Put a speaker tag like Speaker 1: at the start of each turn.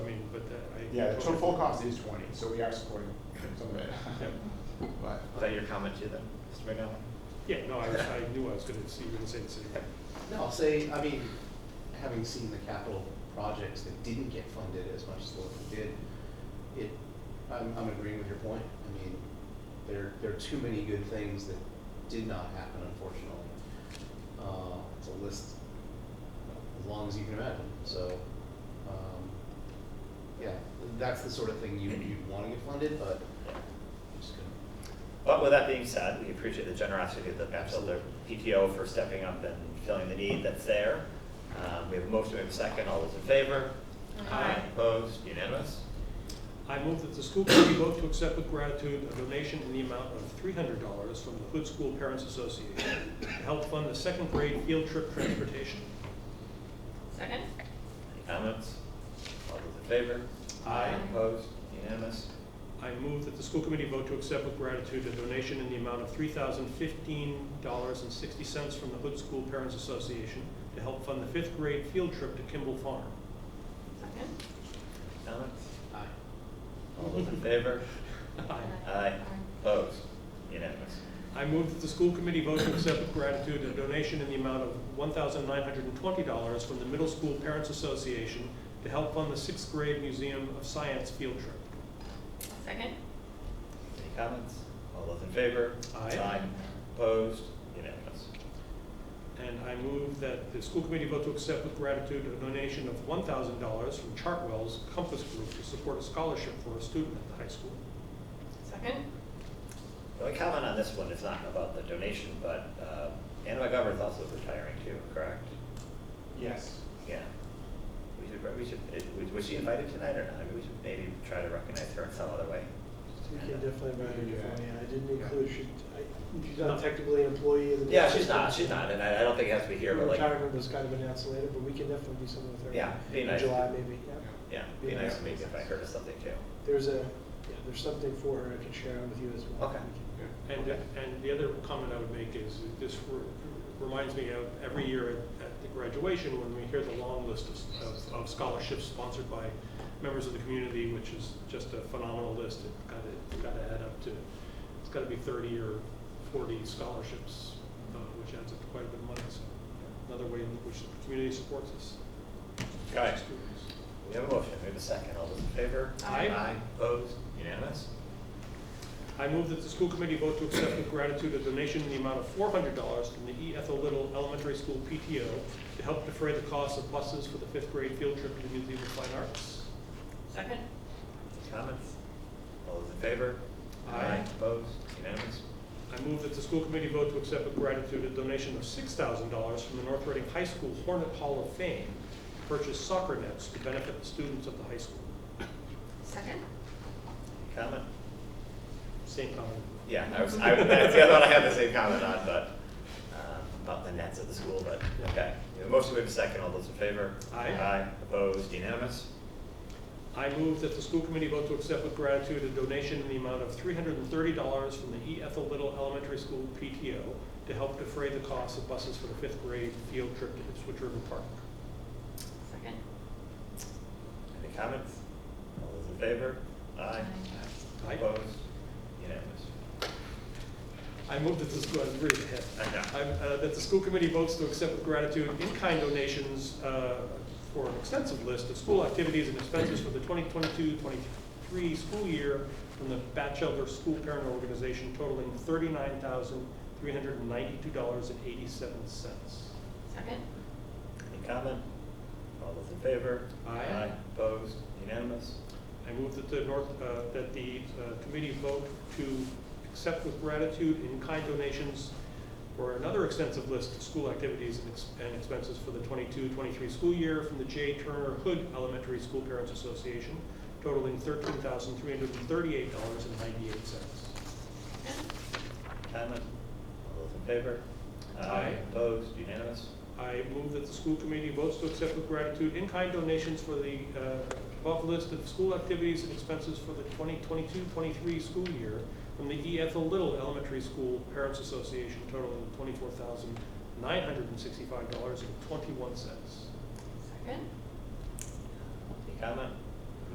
Speaker 1: uh,
Speaker 2: Yeah, the total full cost is twenty, so we are supporting some of it. But,
Speaker 3: Was that your comment too, then, Mr. McDonald?
Speaker 1: Yeah, no, I, I knew I was gonna see, you were gonna say the same thing.
Speaker 4: No, I'll say, I mean, having seen the capital projects that didn't get funded as much as the ones that did, it, I'm, I'm agreeing with your point. I mean, there, there are too many good things that did not happen, unfortunately. Uh, it's a list as long as you can imagine, so, um, yeah, that's the sort of thing you, you'd wanna get funded, but just couldn't.
Speaker 3: But with that being said, we appreciate the generosity of the Batchelder PTO for stepping up and filling the need that's there. Um, We have a motion, we have a second, all those in favor?
Speaker 5: Aye.
Speaker 3: Opposed, unanimous?
Speaker 1: I move that the school committee vote to accept with gratitude a donation in the amount of three hundred dollars from the Hood School Parents Association to help fund the second grade field trip transportation.
Speaker 5: Second?
Speaker 3: Any comments? All those in favor?
Speaker 1: Aye.
Speaker 3: Opposed, unanimous?
Speaker 1: I move that the school committee vote to accept with gratitude a donation in the amount of three thousand fifteen dollars and sixty cents from the Hood School Parents Association to help fund the fifth grade field trip to Kimball Farm.
Speaker 5: Second?
Speaker 3: Comments?
Speaker 4: Aye.
Speaker 3: All those in favor?
Speaker 1: Aye.
Speaker 3: Aye. Opposed, unanimous?
Speaker 1: I move that the school committee vote to accept with gratitude a donation in the amount of one thousand nine hundred and twenty dollars from the Middle School Parents Association to help fund the sixth grade Museum of Science field trip.
Speaker 5: Second?
Speaker 3: Any comments? All those in favor?
Speaker 1: Aye.
Speaker 3: Opposed, unanimous?
Speaker 1: And I move that the school committee vote to accept with gratitude a donation of one thousand dollars from Chartwell's Compass Group to support a scholarship for a student at the high school.
Speaker 5: Second?
Speaker 3: The only comment on this one is not about the donation, but uh, Anna McGovern's also retiring too, correct?
Speaker 2: yes.
Speaker 3: Yeah. We should, we should, it- was- was she invited tonight or not? I mean, we should maybe try to recognize her in some other way.
Speaker 6: You can definitely write it for me, I didn't include, she, I, she's
Speaker 1: No.
Speaker 6: not technically an employee of the.
Speaker 3: Yeah, she's not, she's not, and I I don't think it has to be here, but like,
Speaker 6: Retirement was kind of announced later, but we can definitely do something with her.
Speaker 3: Yeah, be
Speaker 6: in
Speaker 3: nice.
Speaker 6: July maybe, yeah.
Speaker 3: yeah, it'd be nice to maybe invite her to something too.
Speaker 6: There's a, yeah, there's something for her I can share with you as well.
Speaker 3: Okay.
Speaker 6: We can-
Speaker 2: Yeah.
Speaker 1: And,
Speaker 3: Okay.
Speaker 1: and the other comment I would make is, this re- reminds me of every year at- at the graduation, when we hear the long list of- of, of scholarships sponsored by members of the community, which is just a phenomenal list, it gotta, it's gotta add up to, it's gotta be thirty or forty scholarships, uh, which adds up to quite a bit of money, so another way in which the community supports us.
Speaker 3: Guys,
Speaker 1: Students.
Speaker 3: we have a motion, we have a second. All those in favor?
Speaker 1: Aye.
Speaker 3: Aye. Opposed? Unanimous?
Speaker 1: I move that the school committee vote to accept with gratitude a donation in the amount of four hundred dollars from the E. Ethel Little Elementary School PTO to help defray the cost of buses for the fifth grade field trip to the Museum of Fine Arts.
Speaker 5: Second?
Speaker 3: Comments? All those in favor?
Speaker 1: Aye.
Speaker 3: Opposed? Unanimous?
Speaker 1: I move that the school committee vote to accept with gratitude a donation of six thousand dollars from the North Reading High School Hornet Hall of Fame to purchase soccer nets to benefit the students of the high school.
Speaker 5: Second?
Speaker 3: Comment?
Speaker 1: Same comment.
Speaker 3: Yeah, I was, I, that's the other one I had the same comment on, but, um, about the nets at the school, but, okay. We have a Motion, we have a second, all those in favor?
Speaker 1: Aye.
Speaker 3: Aye, opposed, unanimous?
Speaker 1: I move that the school committee vote to accept with gratitude a donation in the amount of three hundred and thirty dollars from the E. Ethel Little Elementary School PTO to help defray the cost of buses for the fifth grade field trip to Switch River Park.
Speaker 5: Second?
Speaker 3: Any comments? All those in favor? Aye.
Speaker 1: Aye.
Speaker 3: Opposed, unanimous?
Speaker 1: I move that the school, I'm reading ahead.
Speaker 3: I know.
Speaker 1: I'm, uh, that the school committee votes to accept with gratitude in-kind donations uh, for an extensive list of school activities and expenses for the 2022-23 school year from the Batchelder School Parent Organization totaling $39,392.87.
Speaker 5: Second?
Speaker 3: Any comment? All those in favor?
Speaker 1: Aye.
Speaker 3: Opposed, unanimous?
Speaker 1: I move that the North, uh, that the uh, committee vote to accept with gratitude in-kind donations for another extensive list of school activities and ex- and expenses for the 22-23 school year from the J. Turner Hood Elementary School Parents Association totaling thirteen thousand three hundred and thirty-eight dollars and ninety-eight cents.
Speaker 5: Second?
Speaker 3: Comment? All those in favor?
Speaker 1: Aye.
Speaker 3: Opposed, unanimous?
Speaker 1: I move that the school committee votes to accept with gratitude in-kind donations for the uh, above list of school activities and expenses for the 2022-23 school year from the E. Ethel Little Elementary School Parents Association totaling $24,965.21.
Speaker 5: Second?
Speaker 3: Any comment?